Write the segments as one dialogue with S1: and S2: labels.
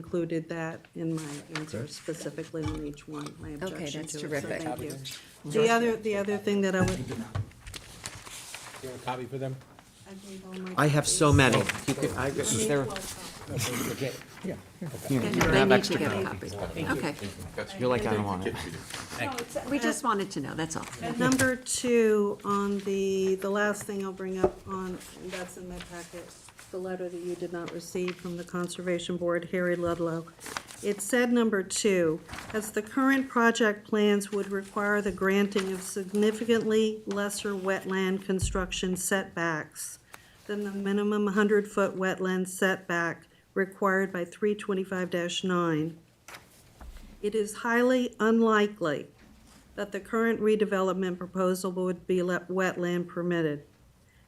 S1: included that in my answer specifically on each one, my objection
S2: that's
S1: to it, so
S2: terrific.
S1: thank you. The other, the other thing that I would.
S3: You have a copy for them?
S1: I gave all my
S4: I have so
S1: copies.
S4: many. You could, I,
S1: Make
S4: there,
S1: twelve copies.
S2: They need to get a copy. Okay,
S4: you're like, I don't want it.
S1: No, it's uh,
S2: we
S1: at-
S2: just wanted to know, that's all.
S1: At number two, on the, the last thing I'll bring up on, and that's in my packet, the letter that you did not receive from the Conservation Board, Harry Ludlow. It said number two, as the current project plans would require the granting of significantly lesser wetland construction setbacks than the minimum hundred-foot wetland setback required by three twenty-five nine. It is highly unlikely that the current redevelopment proposal would be let wetland permitted.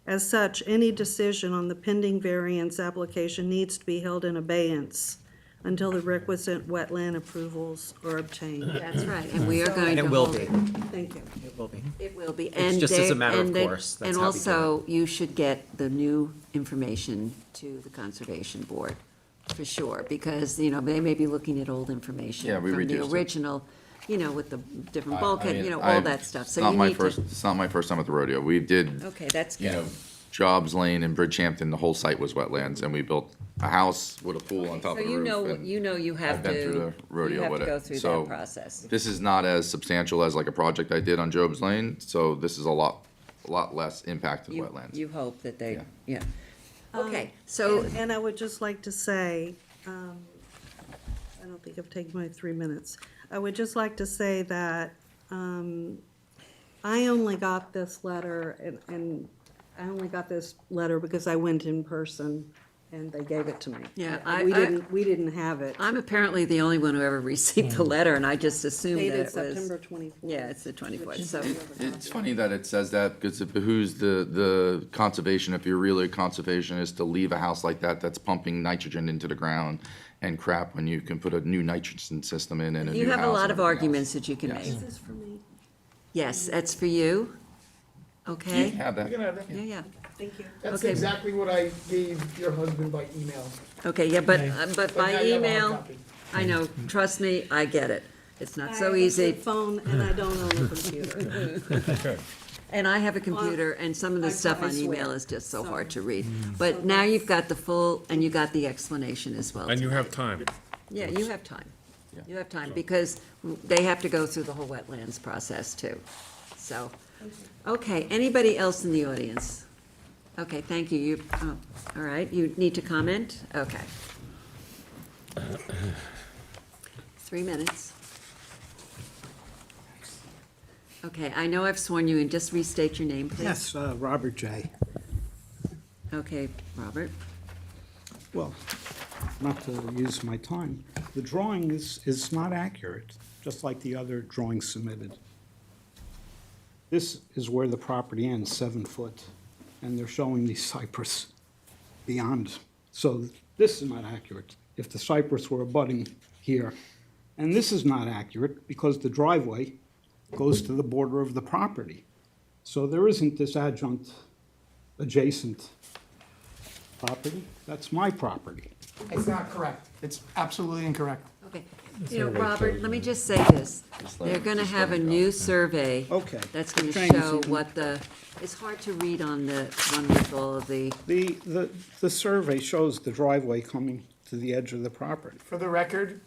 S1: As such, any decision on the pending variance application needs to be held in abeyance until the requisite wetland approvals are obtained.
S2: That's right, and we are going
S4: And
S2: to
S4: it will
S2: hold
S4: be,
S2: it.
S1: Thank you.
S4: it will be.
S2: It will be.
S4: It's
S2: and
S4: just as a
S2: they-
S4: matter of
S2: and they-
S4: course, that's
S2: And
S4: how we do
S2: also, you should get the new information to the Conservation Board, for sure, because, you know, they may be looking at old information.
S5: Yeah, we
S2: From
S5: reduced
S2: the
S5: it.
S2: original, you know, with the different
S5: I- I
S2: bulkhead, you
S5: mean,
S2: know,
S5: I-
S2: all that stuff,
S5: it's
S2: so
S5: not
S2: you
S5: my
S2: need
S5: first-
S2: to.
S5: It's not my first time at the rodeo. We did,
S2: Okay, that's
S5: you know,
S2: good.
S5: Jobs Lane and Bridgehampton, the whole site was wetlands, and we built a house with a pool on top
S2: So
S5: of the
S2: you
S5: roof.
S2: know,
S5: and
S2: you know you have
S5: I've been through
S2: to,
S5: the rodeo
S2: you have
S5: with
S2: to
S5: it.
S2: go through
S5: So
S2: that process.
S5: This is not as substantial as like a project I did on Jobs Lane, so this is a lot, a lot less impacted
S2: You-
S5: wetlands.
S2: You hope that they,
S5: Yeah.
S2: yeah. Okay, so
S1: Um, And- And I would just like to say, um, I don't think I've taken my three minutes. I would just like to say that um, I only got this letter, and- and I only got this letter because I went in person, and they gave it to me.
S2: Yeah,
S1: I-
S2: I-
S1: We
S2: I-
S1: didn't, we didn't have it.
S2: I'm apparently the only one who ever received the letter, and I just assumed that it
S1: Dated
S2: was.
S1: September 24th.
S2: Yeah, it's the twenty-fourth, so,
S5: It's funny that it says that because it behooves the, the conservation, if you're really a conservationist, to leave a house like that that's pumping nitrogen into the ground and crap when you can put a new nitrogen system in and a new house.
S2: you have a lot
S5: and
S2: of
S5: everything
S2: arguments
S5: else.
S2: that you can
S5: Yes.
S2: make.
S1: This is for me.
S2: Yes, that's for you,
S5: You
S2: okay?
S5: can have that.
S6: You can have that.
S2: Yeah, yeah,
S1: Thank you.
S6: That's
S2: Mm-hmm. Okay.
S6: exactly what I gave your husband by email.
S2: okay, yeah, but, uh, but
S6: But now
S2: by
S6: you have a hard
S2: email,
S6: copy.
S2: I know, trust me, I get it. It's
S1: I
S2: not
S1: have
S2: so
S1: a
S2: easy,
S1: phone, and I don't own a computer.
S2: and I have a computer, and some of the
S1: I-
S2: stuff
S1: I
S2: on email
S1: swear.
S2: is just so
S1: Sorry.
S2: hard to read. But now you've got the full, and you got the explanation as well.
S7: And you have time.
S2: Yeah, you have time. You have time, because they have to go through the whole wetlands process too. So, okay, anybody else in the audience? Okay, thank you. You, oh, all right, you need to comment? Okay. Three minutes. Okay, I know I've sworn you in. Just restate your name, please.
S8: Yes, uh, Robert J.
S2: Okay, Robert.
S8: Well, not to use my time, the drawing is, is not accurate, just like the other drawing submitted. This is where the property ends, seven foot, and they're showing the cypress beyond. So this is not accurate, if the cypress were abutting here. And this is not accurate because the driveway goes to the border of the property. So there isn't this adjunct adjacent property, that's my property.
S6: It's not correct. It's absolutely incorrect.
S2: Okay, you know, Robert, let me just say this, they're gonna have a new survey.
S8: Okay.
S2: That's gonna
S8: Trying to
S2: show
S8: see-
S2: what the, it's hard to read on the one with all of the,
S8: The, the, the survey shows the driveway coming to the edge of the property.
S6: For the record,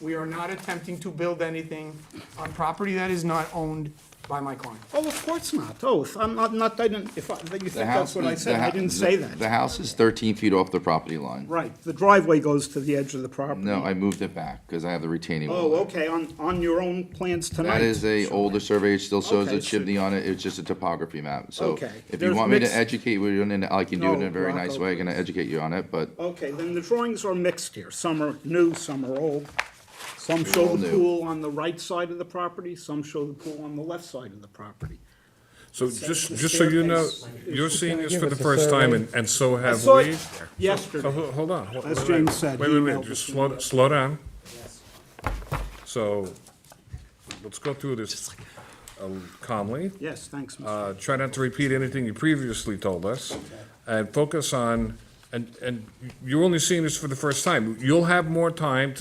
S6: we are not attempting to build anything on property that is not owned by my client.
S8: Oh, of course not, oh, if I'm not, not, I didn't, if I, that you
S5: The
S8: think
S5: house
S8: that's what I
S5: is- the
S8: said, I
S5: hou-
S8: didn't
S5: the-
S8: say
S5: The
S8: that.
S5: house is thirteen feet off the property line.
S8: Right, the driveway goes to the edge of the property.
S5: No, I moved it back because I have the retaining wall.
S8: Oh, okay, on, on your own plans tonight.
S5: That is a older survey, it still shows a
S8: Okay, so-
S5: chimney on it, it's just a topography map. So
S8: Okay.
S5: if you
S8: There's
S5: want me to
S8: mixed-
S5: educate you, on it, I can do it in
S8: No,
S5: a very
S8: Rocco,
S5: nice way, I can
S8: please.
S5: educate you on it, but
S8: Okay, then the drawings are mixed here, some are new, some are old. Some show
S5: all
S8: the
S5: new.
S8: pool on the right side of the property, some show the pool on the left side of the property.
S7: So just, just so you know, you're seeing this for the first time, and, and so
S8: I
S7: have
S8: saw
S7: we.
S8: it yesterday.
S7: So, ho- hold on. ho-
S8: As
S7: wait,
S8: James
S7: wait,
S8: said,
S7: Wait,
S8: he
S7: wait, wait,
S8: emailed
S7: just
S8: us.
S7: slow, slow down. So, let's go through this uh, calmly.
S8: Yes, thanks, Mr.
S7: Uh, try not to repeat anything you previously told us, and focus on And, and you're only seeing this for the first time. You'll have more time to